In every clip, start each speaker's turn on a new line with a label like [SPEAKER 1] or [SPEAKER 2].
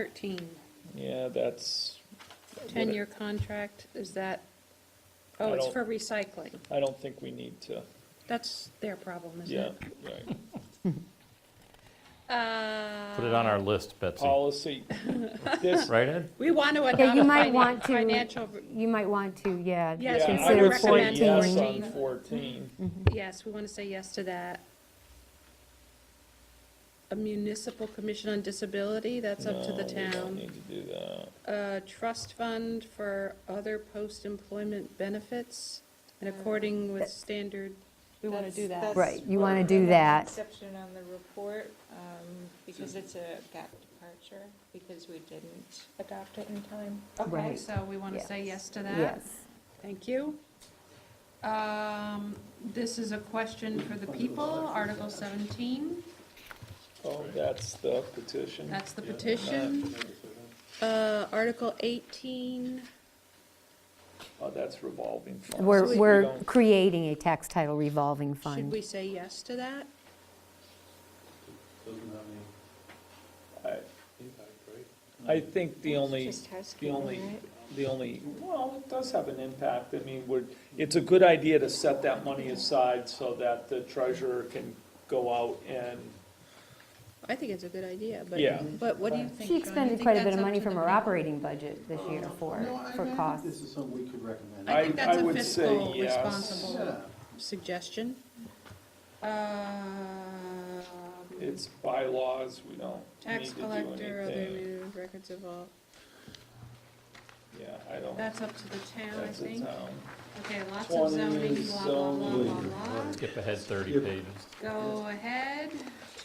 [SPEAKER 1] thirteen,
[SPEAKER 2] Yeah, that's,
[SPEAKER 1] ten-year contract, is that, oh,
[SPEAKER 2] I
[SPEAKER 1] it's
[SPEAKER 2] don't-
[SPEAKER 1] for recycling.
[SPEAKER 2] I don't think we need to,
[SPEAKER 1] That's their problem, isn't
[SPEAKER 2] yeah,
[SPEAKER 1] it?
[SPEAKER 2] right.
[SPEAKER 1] Yeah.
[SPEAKER 3] Put it on our list, Betsy.
[SPEAKER 2] Policy, this,
[SPEAKER 3] Right, Ed?
[SPEAKER 1] Uh, We want to
[SPEAKER 4] Yeah,
[SPEAKER 1] adopt
[SPEAKER 4] you
[SPEAKER 1] a
[SPEAKER 4] might want
[SPEAKER 1] finan-
[SPEAKER 4] to-
[SPEAKER 1] financial,
[SPEAKER 4] You might want to, yeah.
[SPEAKER 1] Yes,
[SPEAKER 2] yeah, I
[SPEAKER 1] Consider
[SPEAKER 2] would say
[SPEAKER 1] recommending
[SPEAKER 2] yes on
[SPEAKER 1] fourteen.
[SPEAKER 2] fourteen.
[SPEAKER 1] yes, we want to say yes to that. A municipal commission on disability, that's up to the
[SPEAKER 2] No, we don't
[SPEAKER 1] town.
[SPEAKER 2] need to do that.
[SPEAKER 1] A trust fund for other post-employment benefits, and according with standard, we want to do
[SPEAKER 5] That's-
[SPEAKER 1] that.
[SPEAKER 5] that's
[SPEAKER 4] Right, you wanna
[SPEAKER 5] where
[SPEAKER 4] do
[SPEAKER 5] we have an
[SPEAKER 4] that.
[SPEAKER 5] Exception on the report, um, because it's a gap departure, because we didn't adopt it in time.
[SPEAKER 1] Okay,
[SPEAKER 4] Right.
[SPEAKER 1] so we want to say yes to that?
[SPEAKER 4] Yes.
[SPEAKER 1] Thank you. Um, This is a question for the people, Article 17,
[SPEAKER 2] Oh, that's the petition.
[SPEAKER 1] that's the petition. Uh, Article 18,
[SPEAKER 2] Oh, that's revolving funds.
[SPEAKER 4] We're,
[SPEAKER 2] We
[SPEAKER 4] we're
[SPEAKER 2] don't-
[SPEAKER 4] creating a tax title revolving
[SPEAKER 1] should
[SPEAKER 4] fund.
[SPEAKER 1] we say yes to that?
[SPEAKER 6] Doesn't have any
[SPEAKER 2] I,
[SPEAKER 6] impact, right?
[SPEAKER 2] I think the only,
[SPEAKER 5] Just
[SPEAKER 2] the
[SPEAKER 5] housekeeping,
[SPEAKER 2] only,
[SPEAKER 5] right?
[SPEAKER 2] the only, well, it does have an impact. I mean, we're, it's a good idea to set that money aside so that the treasurer can go out and,
[SPEAKER 1] I think it's a good idea, but,
[SPEAKER 2] Yeah.
[SPEAKER 1] but what do you think?
[SPEAKER 4] She
[SPEAKER 1] Sean? You
[SPEAKER 4] expended
[SPEAKER 1] think
[SPEAKER 4] quite a bit
[SPEAKER 1] that's
[SPEAKER 4] of
[SPEAKER 1] up
[SPEAKER 4] money
[SPEAKER 1] to
[SPEAKER 4] from
[SPEAKER 1] the
[SPEAKER 4] her
[SPEAKER 1] people?
[SPEAKER 4] operating budget this year for,
[SPEAKER 6] No, I- I
[SPEAKER 4] for
[SPEAKER 6] think This
[SPEAKER 4] costs.
[SPEAKER 6] is something we could recommend.
[SPEAKER 1] I
[SPEAKER 2] I-
[SPEAKER 1] think that's
[SPEAKER 2] I
[SPEAKER 1] a
[SPEAKER 2] would say
[SPEAKER 1] fiscal
[SPEAKER 2] yes.
[SPEAKER 1] responsible
[SPEAKER 6] Yeah.
[SPEAKER 1] suggestion. Uh, Um,
[SPEAKER 2] it's bylaws, we don't need
[SPEAKER 1] Tax
[SPEAKER 2] to do
[SPEAKER 1] collector, other
[SPEAKER 2] anything.
[SPEAKER 1] new records of all,
[SPEAKER 2] Yeah, I don't,
[SPEAKER 1] that's up to the town, I
[SPEAKER 2] that's a
[SPEAKER 1] think.
[SPEAKER 2] town.
[SPEAKER 1] Okay, lots of zoning, blah, blah, blah, blah,
[SPEAKER 6] Zoning.
[SPEAKER 1] blah.
[SPEAKER 3] Skip ahead 30
[SPEAKER 6] Skip.
[SPEAKER 3] pages.
[SPEAKER 1] Go ahead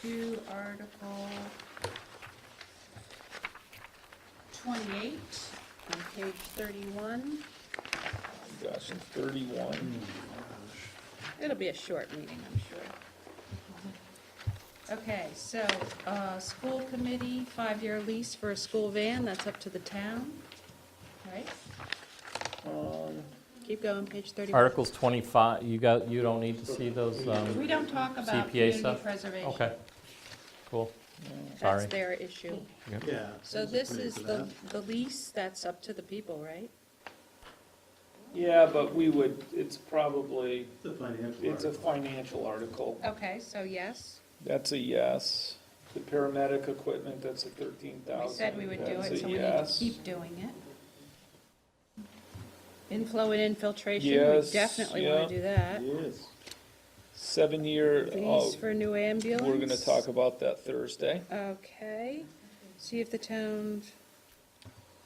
[SPEAKER 1] to Article twenty-eight on page thirty-one.
[SPEAKER 2] Gosh, in thirty-one,
[SPEAKER 1] It'll be a short meeting, I'm sure. Okay, so, uh, school committee, five-year lease for a school van, that's up to the town, right?
[SPEAKER 2] um,
[SPEAKER 1] Keep going, page thirty-one.
[SPEAKER 3] Articles 25, you got, you don't need to see those, um,
[SPEAKER 1] We don't talk about
[SPEAKER 3] CPA
[SPEAKER 1] community
[SPEAKER 3] stuff?
[SPEAKER 1] preservation.
[SPEAKER 3] okay. Cool. Sorry.
[SPEAKER 1] That's their issue.
[SPEAKER 6] Yeah.
[SPEAKER 1] So
[SPEAKER 6] there's
[SPEAKER 1] this
[SPEAKER 6] a committee
[SPEAKER 1] is
[SPEAKER 6] for
[SPEAKER 1] the,
[SPEAKER 6] that.
[SPEAKER 1] the lease, that's up to the people, right?
[SPEAKER 2] yeah, but we would, it's probably,
[SPEAKER 6] It's a financial
[SPEAKER 2] it's a
[SPEAKER 6] article.
[SPEAKER 2] financial article.
[SPEAKER 1] Okay, so yes,
[SPEAKER 2] That's a yes. The paramedic equipment, that's a thirteen
[SPEAKER 1] we
[SPEAKER 2] thousand.
[SPEAKER 1] said we would do it,
[SPEAKER 2] That's a
[SPEAKER 1] so we need to
[SPEAKER 2] yes.
[SPEAKER 1] keep doing it. Inflow and infiltration, we
[SPEAKER 2] Yes,
[SPEAKER 1] definitely wanna
[SPEAKER 2] yeah.
[SPEAKER 1] do that.
[SPEAKER 6] Yes.
[SPEAKER 2] Seven-year, oh,
[SPEAKER 1] Lease for new ambulance.
[SPEAKER 2] we're gonna talk about that Thursday.
[SPEAKER 1] Okay, see if the town,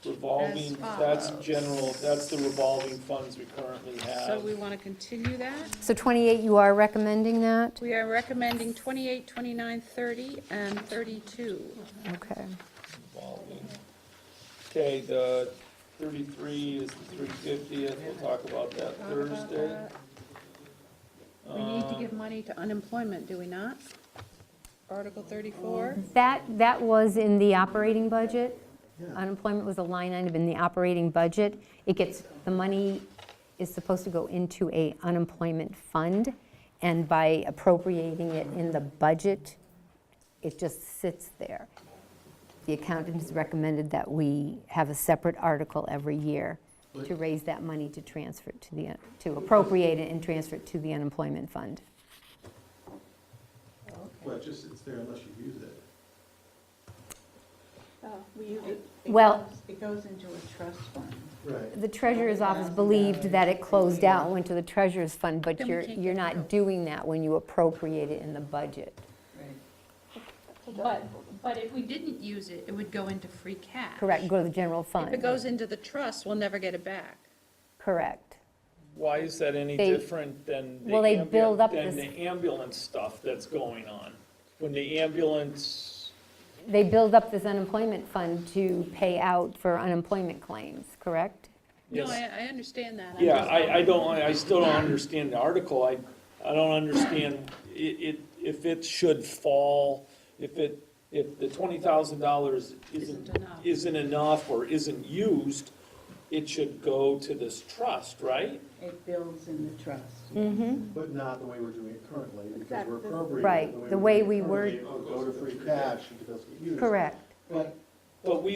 [SPEAKER 2] Revolving,
[SPEAKER 1] As
[SPEAKER 2] that's
[SPEAKER 1] follows.
[SPEAKER 2] general, that's the revolving funds we currently
[SPEAKER 1] so
[SPEAKER 2] have.
[SPEAKER 1] we wanna continue that.
[SPEAKER 4] So 28, you are recommending that?
[SPEAKER 1] We are recommending 28, 29, 30, and thirty-two.
[SPEAKER 4] Okay.
[SPEAKER 2] Revolving. Okay, the thirty-three is the three fiftieth, we'll talk about that
[SPEAKER 1] Talk about
[SPEAKER 2] Thursday.
[SPEAKER 1] that. We need to
[SPEAKER 2] Um,
[SPEAKER 1] give money to unemployment, do we not? Article thirty-four?
[SPEAKER 4] That, that was in the operating budget.
[SPEAKER 6] Yeah.
[SPEAKER 4] Unemployment was a line item in the operating budget. It gets, the money is supposed to go into a unemployment fund, and by appropriating it in the budget, it just sits there. The accountant has recommended that we have a separate article every year to raise that money to transfer it to the, to appropriate it and transfer it to the unemployment fund.
[SPEAKER 6] Well, it just sits there unless you use it.
[SPEAKER 4] Well-
[SPEAKER 5] It goes into a trust fund.
[SPEAKER 6] Right.
[SPEAKER 4] The treasurer's office believed that it closed out and went to the treasurer's fund, but
[SPEAKER 1] Then we
[SPEAKER 4] you're,
[SPEAKER 1] can't
[SPEAKER 4] you're
[SPEAKER 1] get
[SPEAKER 4] not doing that when you appropriate it in the budget.
[SPEAKER 1] But, but if we didn't use it, it would go into free cash.
[SPEAKER 4] Correct, go to the general
[SPEAKER 1] If it
[SPEAKER 4] fund.
[SPEAKER 1] goes into the trust, we'll never get it back.
[SPEAKER 4] Correct.
[SPEAKER 2] Why is that any
[SPEAKER 4] They-
[SPEAKER 2] different than the
[SPEAKER 4] Well, they
[SPEAKER 2] ambu-
[SPEAKER 4] build up
[SPEAKER 2] than
[SPEAKER 4] this-
[SPEAKER 2] the ambulance stuff that's going on? When the ambulance,
[SPEAKER 4] They build up this unemployment fund to pay out for unemployment claims, correct?
[SPEAKER 1] No,
[SPEAKER 2] Yes.
[SPEAKER 1] I, I understand that. I'm
[SPEAKER 2] yeah,
[SPEAKER 1] just-
[SPEAKER 2] I, I don't, I still don't understand the article, I, I don't understand it, it, if it should fall, if it, if the twenty thousand dollars isn't,
[SPEAKER 1] Isn't enough.
[SPEAKER 2] isn't enough or isn't used, it should go to this trust, right?
[SPEAKER 7] It builds in the trust.
[SPEAKER 6] But not the way we're doing it currently, because we're
[SPEAKER 7] Exactly.
[SPEAKER 6] appropriating. it
[SPEAKER 4] Right, the
[SPEAKER 6] we're
[SPEAKER 4] way
[SPEAKER 6] doing it Oh,
[SPEAKER 4] we were-
[SPEAKER 6] currently, It'll go to free cash if it doesn't get used.
[SPEAKER 4] Correct.
[SPEAKER 6] But
[SPEAKER 2] But we